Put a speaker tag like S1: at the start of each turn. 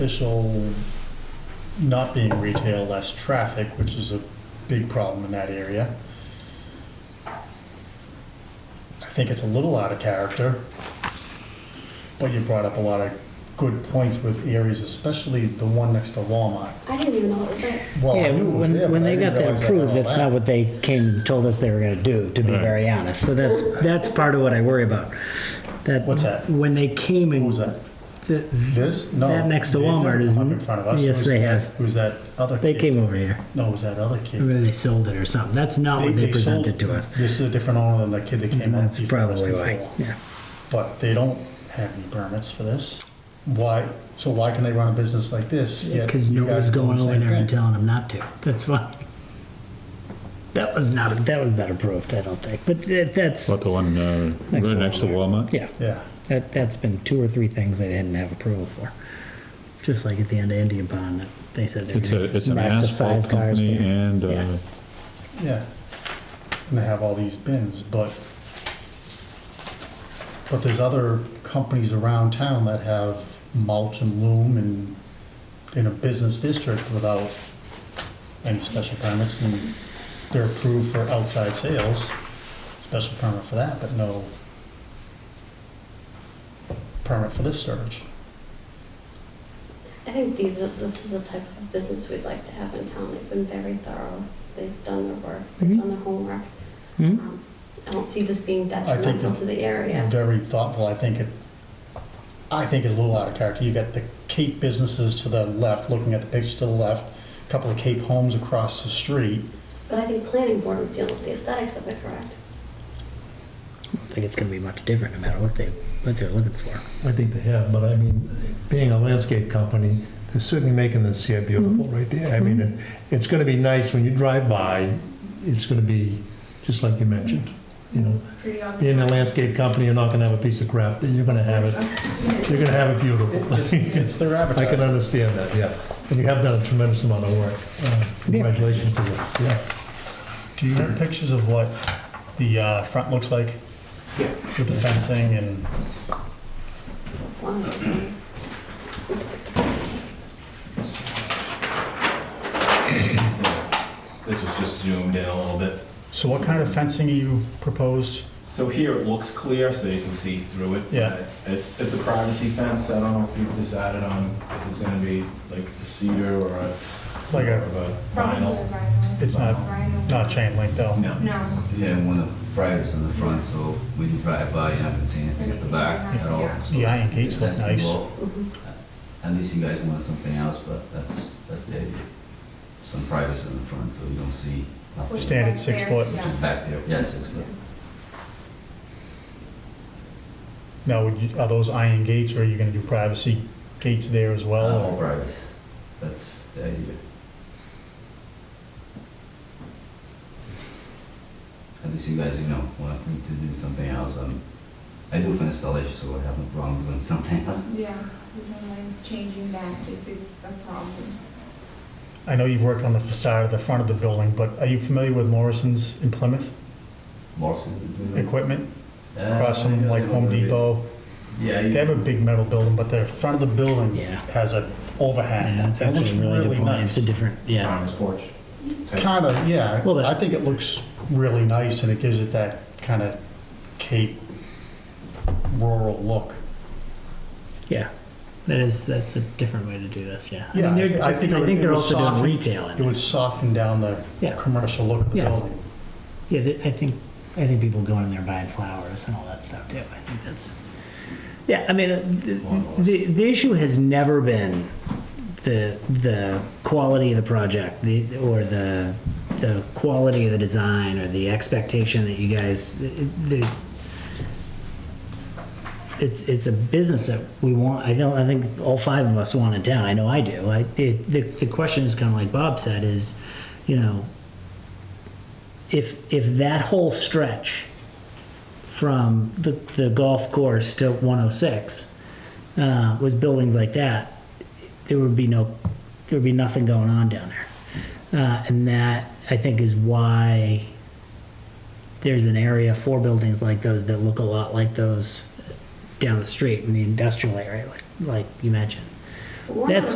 S1: beneficial not being retail, less traffic, which is a big problem in that area. I think it's a little out of character, but you brought up a lot of good points with areas, especially the one next to Walmart.
S2: I didn't even know it was there.
S1: Well, Oh, I
S3: Yeah,
S1: knew it was there,
S3: when, when
S1: but I
S3: they
S1: didn't
S3: got that
S1: realize I had
S3: approved,
S1: all
S3: that's
S1: that.
S3: not what they came, told us they were gonna do, to be
S4: Right.
S3: very honest. So that's, that's part of what I worry about. That.
S1: What's that?
S3: When they came and.
S1: Who was that?
S3: th-
S1: This? No.
S3: That next to
S1: they've never
S3: Walmart is-
S1: come Up in front of us.
S3: yes,
S1: Who's
S3: they
S1: that-
S3: have.
S1: Who's that other
S3: They
S1: kid?
S3: came over here.
S1: No, it was that other kid.
S3: Maybe they sold it or something. That's not what they
S1: sold-
S3: presented to us.
S1: This is a different owner than the kid that came up.
S3: That's
S1: before us
S3: probably why,
S1: before.
S3: yeah.
S1: But they don't have any permits for this. Why, so why can they run a business like this? yet
S3: Because
S1: you guys
S3: nobody's
S1: are doing
S3: going
S1: the
S3: over
S1: same
S3: there and
S1: thing?
S3: telling them not to. That's why. That was not, that was not approved, I don't think. But that- that's,
S4: What the one uh, right
S3: Next to
S4: next to Walmart?
S3: yeah.
S1: Yeah,
S3: That, that's been two or three things they didn't have approval for. Just like at the end of Indian Pond, that they said they're
S4: It's a, it's
S3: gonna
S4: an
S3: max of
S4: asphalt
S3: five cars
S4: company
S3: there.
S4: and, uh,
S3: Yeah.
S1: yeah. And they have all these bins, but, but there's other companies around town that have mulch and loom and in a business district without any special permits and they're approved for outside sales, special permit for that, but no permit for this storage.
S2: I think these are, this is the type of business we'd like to have in town. They've been very thorough. They've done their work, they've
S3: Mhm.
S2: done their homework.
S3: Hmm?
S2: Um, I don't see this being
S1: think
S2: detrimental
S1: that-
S2: to the area.
S1: Very thoughtful, I think it, I think it's a little out of character. You got the Cape businesses to the left, looking at the picture to the left, a couple of Cape homes across the street.
S2: But I think planning board would deal with the aesthetics of it, correct?
S3: I think it's gonna be much different no matter what they, what they're looking for.
S5: I think they have, but I mean, being a landscape company, they're certainly making this here beautiful right there. I mean, it- it's gonna be nice when you drive by, it's gonna be, just like you mentioned, you know.
S6: pretty obvious.
S5: Being a landscape company, you're not gonna have a piece of crap, you're gonna have it, you're gonna have it
S1: It's,
S5: beautiful.
S1: it's their
S5: I can
S1: advertising.
S5: understand that, yeah. And you have done a tremendous amount of work. Uh, Congratulations to you, yeah.
S1: Do you have pictures of what the uh, front looks like? With the fencing and,
S2: One of them.
S7: This was just zoomed in a little bit.
S1: so what kind of fencing are you proposed?
S7: So here it looks clear, so you can see through it.
S1: Yeah.
S7: It's, it's a privacy fence, I don't know if you've decided on if it's gonna be like a cedar or a.
S1: Like a-
S7: or
S6: Probably
S7: Vinyl.
S6: vinyl.
S1: It's not,
S6: Vinyl.
S1: not chain link though?
S7: No.
S6: No.
S8: Yeah, and one of the briars on the front, so when you drive by, you're not gonna see anything at the back at all.
S6: Yeah.
S8: So
S1: The iron gates look
S8: that's the
S1: nice. Mm-hmm.
S8: goal.
S2: Mhm.
S8: At least you guys wanted something else, but that's, that's the idea. Some privacy in the front, so you don't see
S6: Which
S8: nothing
S1: Standard
S6: one's
S1: six
S6: there?
S1: foot.
S6: Yeah.
S8: back there. Yes, it's good.
S1: Now, would you- are those iron gates or are you gonna do privacy gates there as well? uh,
S8: All
S1: or-
S8: privacy, that's the idea. At least you guys, you know, want me to do something else. Um, I do for installation, so I have no problem doing something else.
S6: Yeah, we don't mind changing that if it's a problem.
S1: I know you've worked on the facade of the front of the building, but are you familiar with Morrison's in Plymouth
S8: Morrison?
S1: equipment?
S8: Uh,
S1: Across from like Home Depot?
S8: Yeah.
S1: They
S8: you-
S1: have a big metal building, but the front of the building
S3: Yeah.
S1: has a overhang.
S3: Yeah, that's
S1: It looks
S3: actually a really good point.
S1: nice.
S3: It's a different, yeah.
S7: Farmer's porch.
S1: Kind of, yeah.
S3: Well, that-
S1: I think it looks really nice and it gives it that kind of Cape rural look.
S3: Yeah, that is that's a different way to do this. Yeah,
S1: Yeah,
S3: I mean, they're,
S1: I
S3: I
S1: think
S3: think,
S1: it would- it
S3: they're
S1: would
S3: also doing
S1: soften-
S3: retail. In
S1: It would soften down the
S3: Yeah.
S1: commercial look of the
S3: Yeah.
S1: building.
S3: Yeah, th- I think I think people go in there buying flowers and all that stuff too. I think that's yeah. I mean, uh, th- the the issue has never been the the quality of the project, the or the the quality of the design or the expectation that you guys the. It's, it's a business that we want. I don't. I think all five of us want it down. I know I do. I, it, the, the question is kind of like Bob said: is, you know, if if that whole stretch from the, the golf course to 106 uh, was buildings like that, there would be no there would be nothing going on down there, uh, and that I think is why there's an area for buildings like those that look a lot like those down the street in the industrial area, like like you mentioned.
S9: for.
S2: That's